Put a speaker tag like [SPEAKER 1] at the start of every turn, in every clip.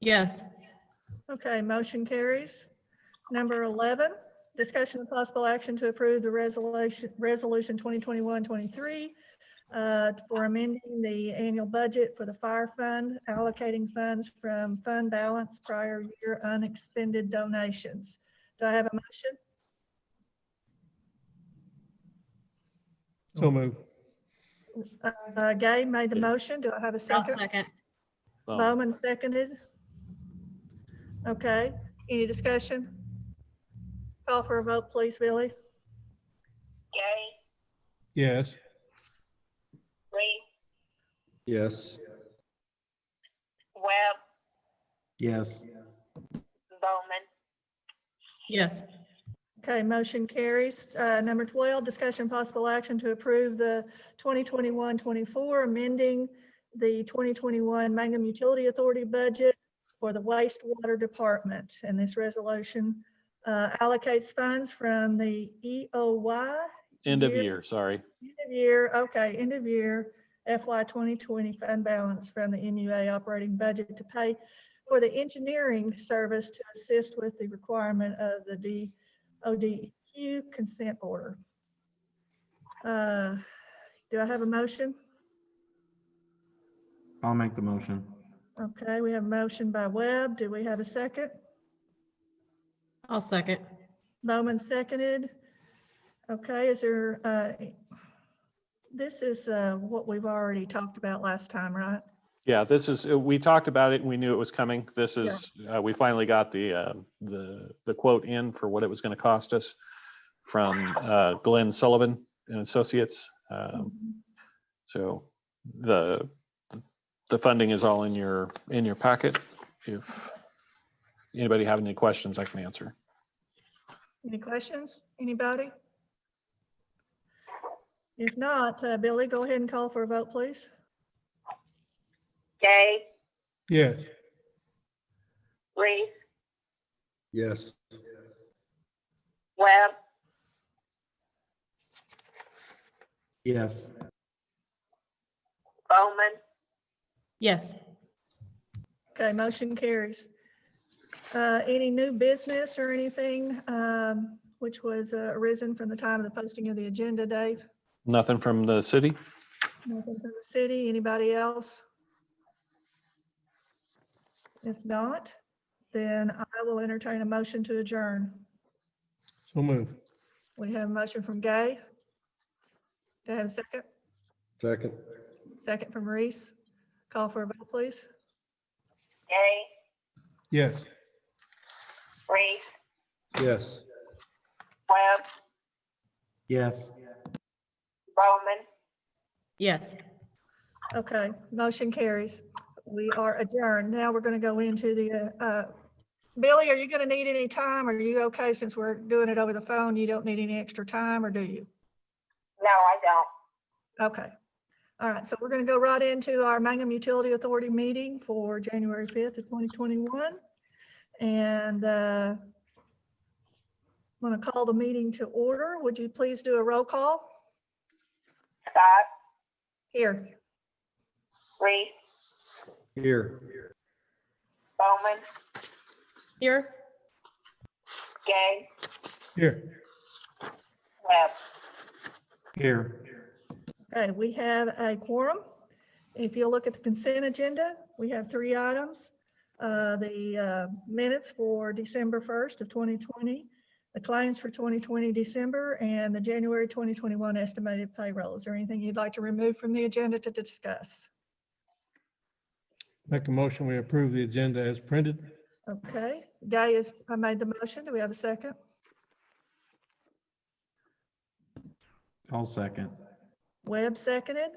[SPEAKER 1] Yes.
[SPEAKER 2] Okay, motion carries. Number 11, discussion of possible action to approve the resolution, resolution 2021-23 uh, for amending the annual budget for the fire fund, allocating funds from fund balance prior year unexpended donations. Do I have a motion?
[SPEAKER 3] So move.
[SPEAKER 2] Uh, Gay made the motion. Do I have a
[SPEAKER 1] I'll
[SPEAKER 2] second?
[SPEAKER 1] second.
[SPEAKER 4] Bowman.
[SPEAKER 2] Bowman seconded. Okay, any discussion? Call for a vote, please, Billy.
[SPEAKER 5] Gay,
[SPEAKER 3] Yes.
[SPEAKER 5] Lee,
[SPEAKER 4] Yes.
[SPEAKER 5] Webb,
[SPEAKER 4] Yes.
[SPEAKER 5] Bowman,
[SPEAKER 1] Yes.
[SPEAKER 2] Okay, motion carries. Uh, Number 12, discussion possible action to approve the 2021-24, amending the 2021 Mangum Utility Authority budget for the wastewater department. And this resolution uh, allocates funds from the E EOY
[SPEAKER 4] End of
[SPEAKER 2] Year.
[SPEAKER 4] year, sorry.
[SPEAKER 2] end of year, okay, end of year FY 2020 fund balance from the MUA operating budget to pay for the engineering service to assist with the requirement of the DODQ consent order. Uh, Do I have a motion?
[SPEAKER 6] I'll make the motion.
[SPEAKER 2] Okay, we have a motion by Webb. Do we have a second?
[SPEAKER 1] I'll second.
[SPEAKER 2] Bowman seconded. Okay, is there, uh, this is uh, what we've already talked about last time, right?
[SPEAKER 4] Yeah, this is, uh, we talked about it and we knew it was coming. This
[SPEAKER 2] Yeah.
[SPEAKER 4] is, uh, we finally got the, uh, the, the quote in for what it was going to cost us from uh, Glenn Sullivan and Associates.
[SPEAKER 2] Mm-hmm.
[SPEAKER 4] Um, So the, the funding is all in your, in your packet. If anybody have any questions, I can answer.
[SPEAKER 2] Any questions? Anybody? If not, uh, Billy, go ahead and call for a vote, please.
[SPEAKER 5] Gay,
[SPEAKER 3] Yes.
[SPEAKER 5] Lee,
[SPEAKER 7] Yes,
[SPEAKER 5] Webb,
[SPEAKER 6] Yes.
[SPEAKER 5] Bowman,
[SPEAKER 1] Yes.
[SPEAKER 2] Okay, motion carries. Uh, Any new business or anything um, which was uh, arisen from the time of the posting of the agenda, Dave?
[SPEAKER 4] Nothing from the city?
[SPEAKER 2] Nothing from the city, anybody else? If not, then I will entertain a motion to adjourn.
[SPEAKER 3] So move.
[SPEAKER 2] We have a motion from Gay. Do I have a second?
[SPEAKER 7] second.
[SPEAKER 2] Second from Reese. Call for a vote, please.
[SPEAKER 5] Gay,
[SPEAKER 3] Yes.
[SPEAKER 5] Lee,
[SPEAKER 7] Yes,
[SPEAKER 5] Webb,
[SPEAKER 6] Yes.
[SPEAKER 5] Bowman,
[SPEAKER 1] Yes.
[SPEAKER 2] Okay, motion carries. We are adjourned. Now we're going to go into the, uh, uh, Billy, are you going to need any time? Are you okay since we're doing it over the phone? You don't need any extra time or do you?
[SPEAKER 5] no, I don't.
[SPEAKER 2] Okay. All right, so we're going to go right into our Mangum Utility Authority meeting for January 5th of 2021. And uh, I'm going to call the meeting to order. Would you please do a roll call?
[SPEAKER 5] Scott,
[SPEAKER 2] Here.
[SPEAKER 5] Lee,
[SPEAKER 7] here.
[SPEAKER 5] Bowman,
[SPEAKER 1] Here?
[SPEAKER 5] Gay,
[SPEAKER 3] Here.
[SPEAKER 5] Webb.
[SPEAKER 6] Here.
[SPEAKER 2] Okay, we have a quorum. If you look at the consent agenda, we have three items. Uh, The uh, minutes for December 1st of 2020, the claims for 2020 December, and the January 2021 estimated payroll. Is there anything you'd like to remove from the agenda to discuss?
[SPEAKER 3] Make a motion, we approve the agenda as printed.
[SPEAKER 2] Okay, Guy is, I made the motion. Do we have a second?
[SPEAKER 6] I'll second.
[SPEAKER 2] Webb seconded.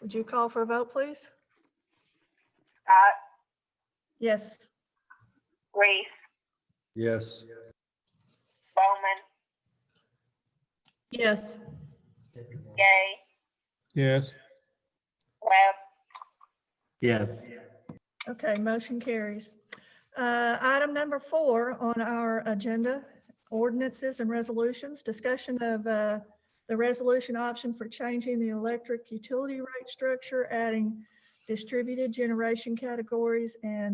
[SPEAKER 2] Would you call for a vote, please?
[SPEAKER 5] Scott,
[SPEAKER 2] Yes.
[SPEAKER 5] Lee,
[SPEAKER 7] Yes,
[SPEAKER 5] Bowman,
[SPEAKER 1] Yes.
[SPEAKER 5] Gay,
[SPEAKER 3] Yes.
[SPEAKER 5] Webb,
[SPEAKER 6] Yes.
[SPEAKER 2] Okay, motion carries. Uh, Item number four on our agenda, ordinances and resolutions, discussion of uh, the resolution option for changing the electric utility rate structure, adding distributed generation categories and